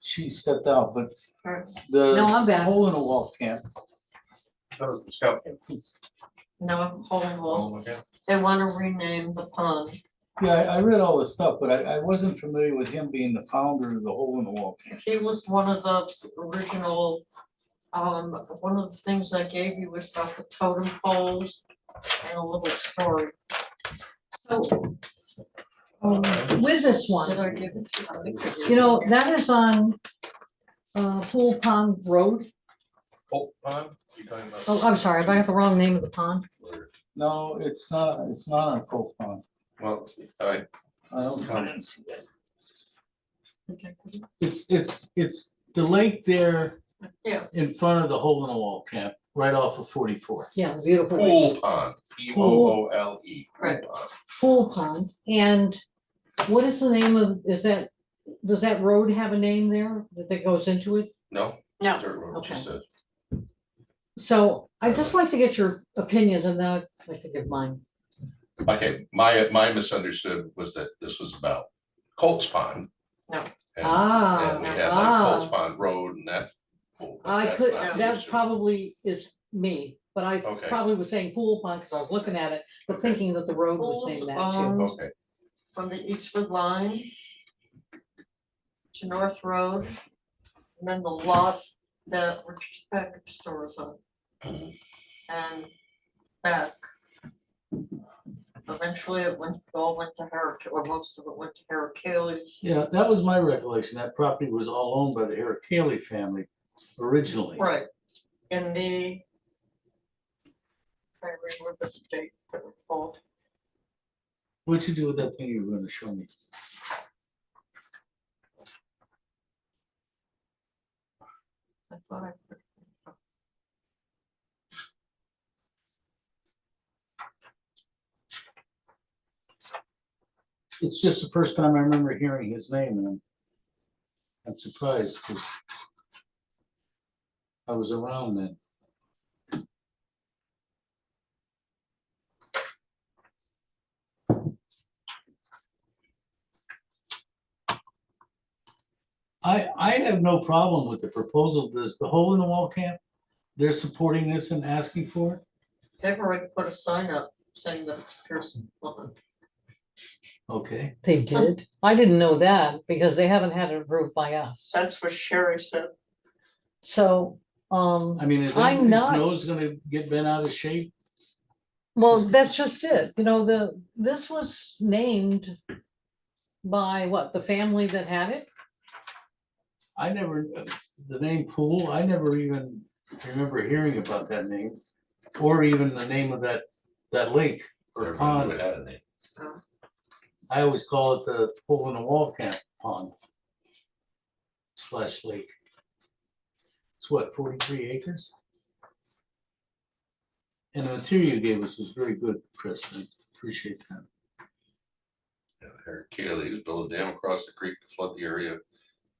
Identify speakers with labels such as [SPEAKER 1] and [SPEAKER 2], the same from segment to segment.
[SPEAKER 1] she stepped out, but
[SPEAKER 2] Alright.
[SPEAKER 1] the
[SPEAKER 2] No, I'm back.
[SPEAKER 1] hole in the wall camp.
[SPEAKER 3] That was the scout.
[SPEAKER 1] it's-
[SPEAKER 2] No, I'm holding one.
[SPEAKER 3] Oh, okay.
[SPEAKER 2] They wanna rename the pond.
[SPEAKER 1] Yeah, I, I read all this stuff, but I, I wasn't familiar with him being the founder of the hole in the wall camp.
[SPEAKER 2] He was one of the original, um, one of the things I gave you was about the totem poles and a little story.
[SPEAKER 4] So, um, with this
[SPEAKER 2] Did
[SPEAKER 4] one,
[SPEAKER 2] I give it to you? I think I did.
[SPEAKER 4] you know, that is on uh, Pool Pond Road.
[SPEAKER 3] Hope pond, you talking about?
[SPEAKER 4] Oh, I'm sorry, if I got the wrong name of the pond.
[SPEAKER 1] No, it's not, it's not on Coke Pond.
[SPEAKER 3] Well, I,
[SPEAKER 1] I don't
[SPEAKER 3] No.
[SPEAKER 1] think it's-
[SPEAKER 2] Okay.
[SPEAKER 1] It's, it's, it's the lake there
[SPEAKER 2] Yeah.
[SPEAKER 1] in front of the hole in the wall camp, right off of forty-four.
[SPEAKER 4] Yeah, beautiful. lake.
[SPEAKER 3] pool pond, P O O L E.
[SPEAKER 2] Right.
[SPEAKER 4] Pool Pond. And what is the name of, is that, does that road have a name there that that goes into it?
[SPEAKER 3] No?
[SPEAKER 2] No.
[SPEAKER 3] Dirt road, just a,
[SPEAKER 4] So I'd just like to get your opinions and then I'd like to give mine.
[SPEAKER 3] okay, my, my misunderstood was that this was about Colts Pond.
[SPEAKER 2] No.
[SPEAKER 3] And-
[SPEAKER 4] Ah,
[SPEAKER 3] And we had like Colts
[SPEAKER 4] ah,
[SPEAKER 3] Pond Road and that. pool, but
[SPEAKER 4] I
[SPEAKER 3] that's
[SPEAKER 4] could,
[SPEAKER 3] not the
[SPEAKER 4] that
[SPEAKER 3] issue.
[SPEAKER 4] probably is me, but I
[SPEAKER 3] Okay.
[SPEAKER 4] probably was saying Pool Pond because I was looking at it, but
[SPEAKER 3] Okay.
[SPEAKER 4] thinking that the road was
[SPEAKER 2] Pools
[SPEAKER 4] named that too.
[SPEAKER 2] owned
[SPEAKER 3] Okay,
[SPEAKER 2] from the Eastwood line to North Road, and then the lot that Richard's package store is on. And back. Eventually it went, all went to Herrick, or most of it went to Herrick Haley's.
[SPEAKER 1] Yeah, that was my recollection. That property was all owned by the Eric Haley family originally.
[SPEAKER 2] Right, in the. I remember the date that was called.
[SPEAKER 1] What'd you do with that thing you were gonna show me?
[SPEAKER 2] I thought I put-
[SPEAKER 1] It's just the first time I remember hearing his name and I'm, I'm surprised because I was around then. I, I have no problem with the proposal. Does the hole in the wall camp, they're supporting this and asking for it?
[SPEAKER 2] They've already put a sign up saying that it's Pearson Pond.
[SPEAKER 1] Okay,
[SPEAKER 4] They
[SPEAKER 2] Huh.
[SPEAKER 4] did? I didn't know that because they haven't had it approved by us.
[SPEAKER 2] That's what Sherry said.
[SPEAKER 4] So,
[SPEAKER 1] I
[SPEAKER 4] um,
[SPEAKER 1] mean, is that-
[SPEAKER 4] I'm
[SPEAKER 1] his
[SPEAKER 4] not-
[SPEAKER 1] nose gonna get bent out of shape?
[SPEAKER 4] well, that's just it, you know, the, this was named by what, the family that had it?
[SPEAKER 1] I never, the name Pool, I never even remember hearing about that name, or even the name of that, that lake or
[SPEAKER 3] everyone would
[SPEAKER 1] pond.
[SPEAKER 3] add a name.
[SPEAKER 1] I always call it the Pool in the Wall Camp Pond slash lake. It's what, forty-three acres? And the material you gave us was very good, Chris, I appreciate that.
[SPEAKER 3] Eric Keeley has built a dam across the creek to flood the area,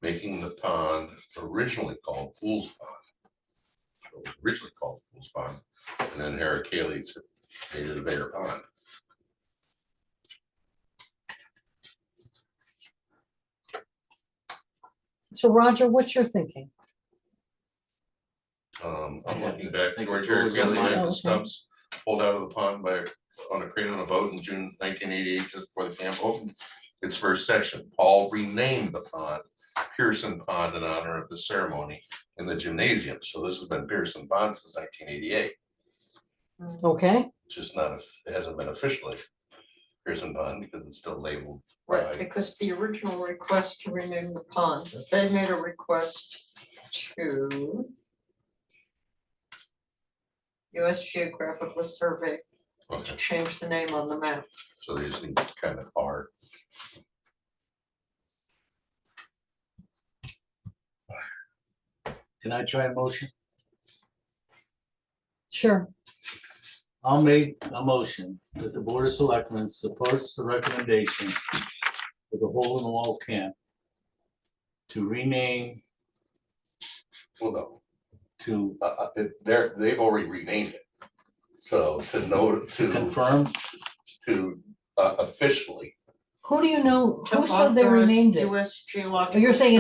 [SPEAKER 3] making the pond originally called Fool's Pond. It was Originally called Fool's Pond, and then Eric Keeley made it a bigger pond.
[SPEAKER 4] So Roger, what's your thinking?
[SPEAKER 3] Um, I'm
[SPEAKER 1] Yeah,
[SPEAKER 3] looking back,
[SPEAKER 1] think
[SPEAKER 3] George
[SPEAKER 1] it
[SPEAKER 3] Eric
[SPEAKER 1] goes
[SPEAKER 3] Keeley
[SPEAKER 1] online.
[SPEAKER 3] had
[SPEAKER 4] Okay.
[SPEAKER 3] the stumps pulled out of the pond by, on a crane on a boat in June nineteen eighty-eight, just before the camp opened. Its first section, Paul renamed the pond Pearson Pond in honor of the ceremony in the gymnasium, so this has been Pearson Pond since nineteen eighty-eight.
[SPEAKER 4] Okay,
[SPEAKER 3] just not, of- it hasn't been officially Pearson Pond because it's still labeled.
[SPEAKER 2] Right,
[SPEAKER 3] by-
[SPEAKER 2] because the original request to rename the pond, they made a request to US Geographical Survey to
[SPEAKER 3] Okay,
[SPEAKER 2] change the name on the map.
[SPEAKER 3] so they just need to kind of are.
[SPEAKER 1] Can I try a motion?
[SPEAKER 4] sure.
[SPEAKER 1] I'll make a motion that the Board of Selectmen supports the recommendation for the hole in the wall camp to rename
[SPEAKER 3] Well, no,
[SPEAKER 1] to
[SPEAKER 3] uh, uh, they- they're, they've already renamed it. So to know, to,
[SPEAKER 1] confirm
[SPEAKER 3] to uh, officially
[SPEAKER 2] Who do you know, who
[SPEAKER 4] Took
[SPEAKER 2] said
[SPEAKER 4] off
[SPEAKER 2] they
[SPEAKER 4] the
[SPEAKER 2] renamed it?
[SPEAKER 4] US Geological.
[SPEAKER 2] You're saying